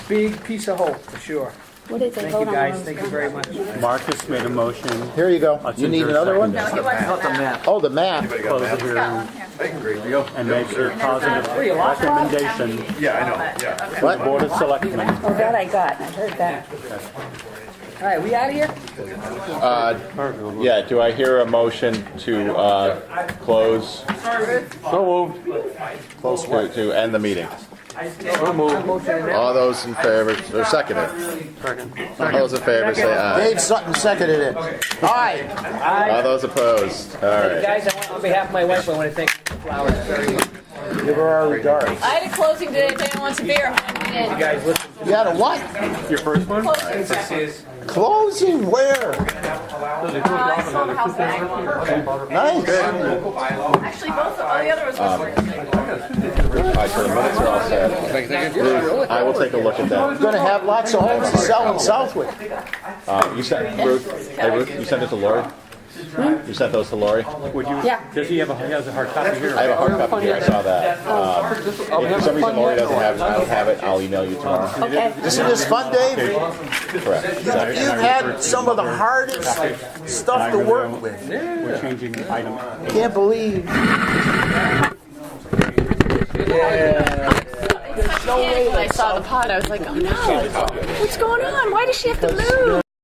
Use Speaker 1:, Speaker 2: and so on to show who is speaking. Speaker 1: big piece of hope, for sure.
Speaker 2: What is it?
Speaker 1: Thank
Speaker 2: Vote
Speaker 1: you,
Speaker 2: on
Speaker 1: guys,
Speaker 2: those.
Speaker 1: thank you very much.
Speaker 3: Marcus made a motion.
Speaker 4: Here you go. You
Speaker 3: Hudson,
Speaker 4: need
Speaker 3: there's
Speaker 4: another one?
Speaker 3: second.
Speaker 5: Not the map.
Speaker 4: Oh, the map.
Speaker 6: Anybody got
Speaker 3: Close
Speaker 6: a
Speaker 3: the
Speaker 6: map?
Speaker 3: hearing and make a
Speaker 1: Where you
Speaker 3: positive
Speaker 1: lost it?
Speaker 3: recommendation
Speaker 6: Yeah, I know, yeah.
Speaker 4: What?
Speaker 3: Board of Selectmen.
Speaker 2: Oh, that I got, I heard that.
Speaker 1: All right, we out of here?
Speaker 4: Yeah, do I hear a motion to uh, close,
Speaker 3: So moved.
Speaker 4: close to to end the meeting?
Speaker 3: So moved.
Speaker 4: All those in favor, or second it. All those in favor, say aye.
Speaker 5: Dave Sutton seconded it.
Speaker 1: Aye.
Speaker 4: All those opposed, all right.
Speaker 1: Guys, I want- on behalf of my wife, I want to thank you for the flowers very much.
Speaker 3: Give her our regards.
Speaker 7: I had a closing today, if anyone wants a beer.
Speaker 1: You guys, listen,
Speaker 5: You had a what?
Speaker 3: Your first one?
Speaker 7: Closing,
Speaker 5: Closing where?
Speaker 7: Uh, I sold the house back.
Speaker 5: Nice.
Speaker 7: Actually, both, oh, the other was
Speaker 6: Um,
Speaker 7: whispering.
Speaker 4: All right, so the minutes are all set. I will take a look at that.
Speaker 5: Gonna have lots of homes to sell in Southwick.
Speaker 4: Uh, You sent, Ruth, hey Ruth, you sent it to Lori? You sent those to Lori?
Speaker 3: Would you,
Speaker 2: Yeah.
Speaker 3: does he have a, he has a hard copy here?
Speaker 4: I have a hard copy here, I saw that.
Speaker 5: Um,
Speaker 4: Uh, If for some reason Lori doesn't have it, I don't have it, I'll email you tomorrow.
Speaker 2: Okay.
Speaker 5: Isn't this fun, Dave?
Speaker 4: Correct.
Speaker 5: You've had some of the hardest stuff to work with.
Speaker 3: We're changing item
Speaker 5: Can't believe.
Speaker 7: I was like, when I saw the pot, I was like, oh no, what's going on? Why does she have to move?